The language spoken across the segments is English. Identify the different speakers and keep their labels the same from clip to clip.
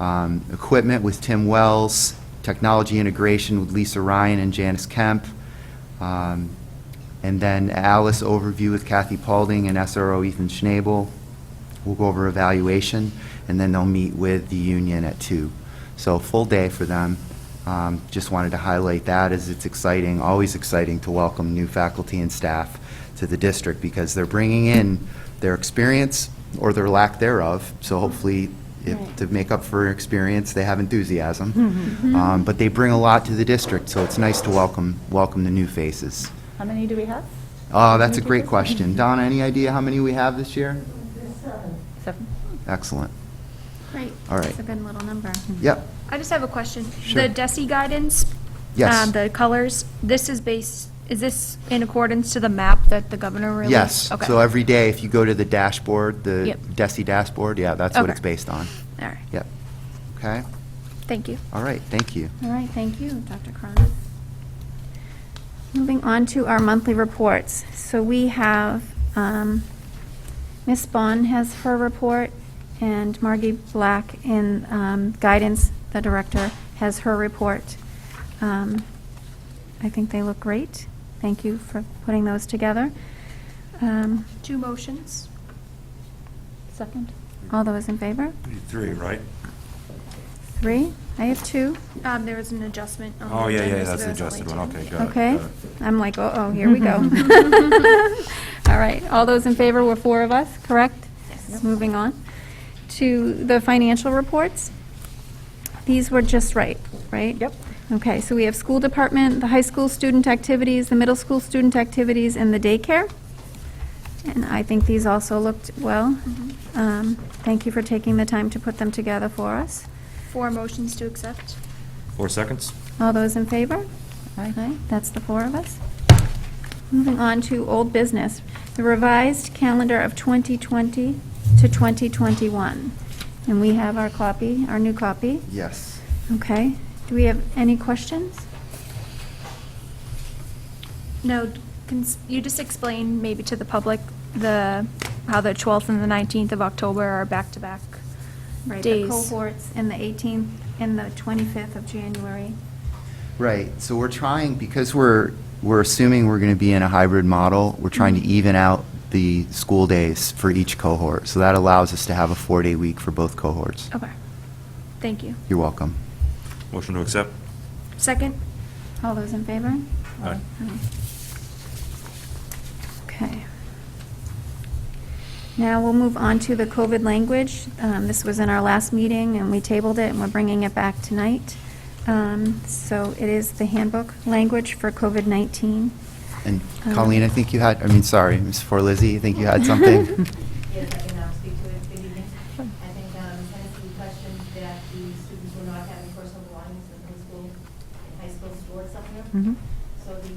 Speaker 1: um, equipment with Tim Wells, technology integration with Lisa Ryan and Janice Kemp, um, and then Alice overview with Kathy Paulding and SRO Ethan Schnabel. We'll go over evaluation, and then they'll meet with the union at two. So full day for them. Um, Just wanted to highlight that as it's exciting, always exciting to welcome new faculty and staff to the district because they're bringing in their experience or their lack thereof. So hopefully, if-
Speaker 2: Right.
Speaker 1: to make up for experience, they have enthusiasm. Um, But they bring a lot to the district, so it's nice to welcome, welcome the new faces.
Speaker 2: How many do we have?
Speaker 1: Oh, that's a great question. Donna, any idea how many we have this year?
Speaker 2: Seven.
Speaker 1: Excellent.
Speaker 3: Right.
Speaker 1: All right.
Speaker 3: That's a good little number.
Speaker 1: Yep.
Speaker 4: I just have a question.
Speaker 1: Sure.
Speaker 4: The DESI guidance?
Speaker 1: Yes.
Speaker 4: um, The colors, this is based, is this in accordance to the map that the governor released?
Speaker 1: Yes.
Speaker 4: Okay.
Speaker 1: So every day, if you go to the dashboard, the
Speaker 4: Yep.
Speaker 1: DESI dashboard, yeah, that's what
Speaker 4: Okay.
Speaker 1: it's based on.
Speaker 4: All right,
Speaker 1: Yep. Okay?
Speaker 4: thank you.
Speaker 1: All right, thank you.
Speaker 3: All right, thank you, Dr. Cronin. Moving on to our monthly reports. So we have, um, Ms. Bond has her report, and Margie Black in um, Guidance, the director, has her report. Um, I think they look great. Thank you for putting those together. Um,
Speaker 4: Two motions?
Speaker 2: Second?
Speaker 3: All those in favor?
Speaker 5: Three, right?
Speaker 3: Three? I have two.
Speaker 4: Um, There was an adjustment. on the
Speaker 5: Oh, yeah,
Speaker 4: agenda,
Speaker 5: yeah,
Speaker 4: so
Speaker 5: that's the
Speaker 4: there's only
Speaker 5: adjusted one,
Speaker 4: two.
Speaker 5: okay, got it.
Speaker 3: Okay,
Speaker 5: got it.
Speaker 3: I'm like, oh, here we go. All right, all those in favor were four of us, correct? Yes. Moving on to the financial reports. These were just right, right?
Speaker 2: Yep.
Speaker 3: Okay, so we have school department, the high school student activities, the middle school student activities, and the daycare. And I think these also looked well. Um, Thank you for taking the time to put them together for us.
Speaker 4: Four motions to accept?
Speaker 5: Four seconds?
Speaker 3: All those in favor?
Speaker 2: Aye.
Speaker 3: That's the four of us. Moving on to old business, the revised calendar of 2020 to 2021. And we have our copy, our new copy.
Speaker 1: Yes.
Speaker 3: Okay. Do we have any questions?
Speaker 4: No, can s- you just explain maybe to the public the, how the 12th and the 19th of October are back-to-back
Speaker 3: Right, the
Speaker 4: days?
Speaker 3: cohorts in the 18th and the 25th of January.
Speaker 1: Right, so we're trying, because we're, we're assuming we're going to be in a hybrid model, we're trying to even out the school days for each cohort. So that allows us to have a four-day week for both cohorts.
Speaker 4: Okay, thank you.
Speaker 1: You're welcome.
Speaker 5: Motion to accept?
Speaker 4: Second?
Speaker 3: All those in favor?
Speaker 5: Aye.
Speaker 3: Okay. Now we'll move on to the COVID language. Um, This was in our last meeting, and we tabled it, and we're bringing it back tonight. Um, So it is the handbook language for COVID-19.
Speaker 1: And
Speaker 3: Um,
Speaker 1: Colleen, I think you had, I mean, sorry, Ms. Forlizzi, I think you had something?
Speaker 6: Yes, I can um, speak to it. Good evening. I think um, Tennessee questioned that the students were not having personal belongings in high school, in high school stored somewhere.
Speaker 3: Mhm.
Speaker 6: So the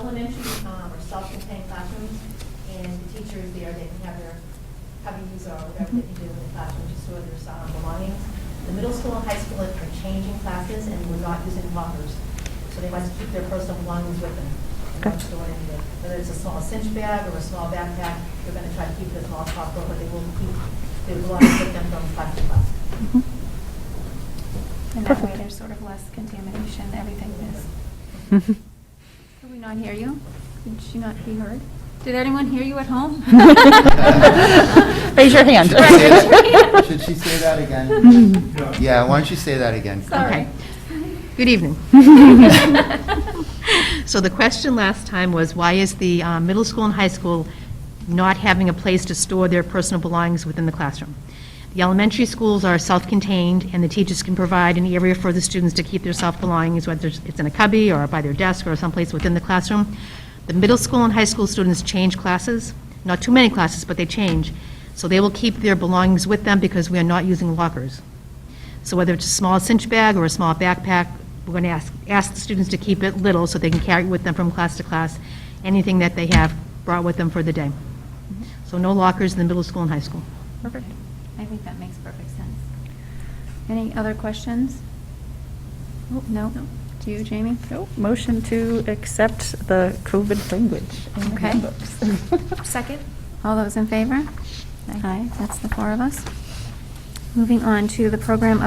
Speaker 6: elementary um, are self-contained classrooms, and the teachers there, they can have their cubbies or whatever they can do in the classroom to store their um, belongings. The middle school and high school are changing classes, and we're not using lockers, so they must keep their personal belongings with them. They're not
Speaker 2: Gotcha.
Speaker 6: storing it. Whether it's a small cinch bag or a small backpack, they're going to try to keep it as small as possible, but they will keep their belongings with them from class to class.
Speaker 3: And that way, there's sort of less contamination, everything is. Did we not hear you? Did she not be heard? Did anyone hear you at home?
Speaker 2: Raise your hand.
Speaker 3: Right, raise your hand.
Speaker 1: Should she say that again? Yeah, why don't you say that again?
Speaker 3: Sorry.
Speaker 7: Good evening. So the question last time was, why is the uh, middle school and high school not having a place to store their personal belongings within the classroom? The elementary schools are self-contained, and the teachers can provide an area for the students to keep their self-belongings, whether it's in a cubby or by their desk or someplace within the classroom. The middle school and high school students change classes, not too many classes, but they change. So they will keep their belongings with them because we are not using lockers. So whether it's a small cinch bag or a small backpack, we're going to ask, ask the students to keep it little so they can carry it with them from class to class, anything that they have brought with them for the day. So no lockers in the middle school and high school.
Speaker 3: Perfect. I think that makes perfect sense. Any other questions? Oh, No? Do you, Jamie?
Speaker 2: Nope. Motion to accept the COVID language in the
Speaker 3: Okay.
Speaker 2: handbooks.
Speaker 4: Second?
Speaker 3: All those in favor?
Speaker 2: Aye.
Speaker 3: Aye, that's the four of us. Moving on to the program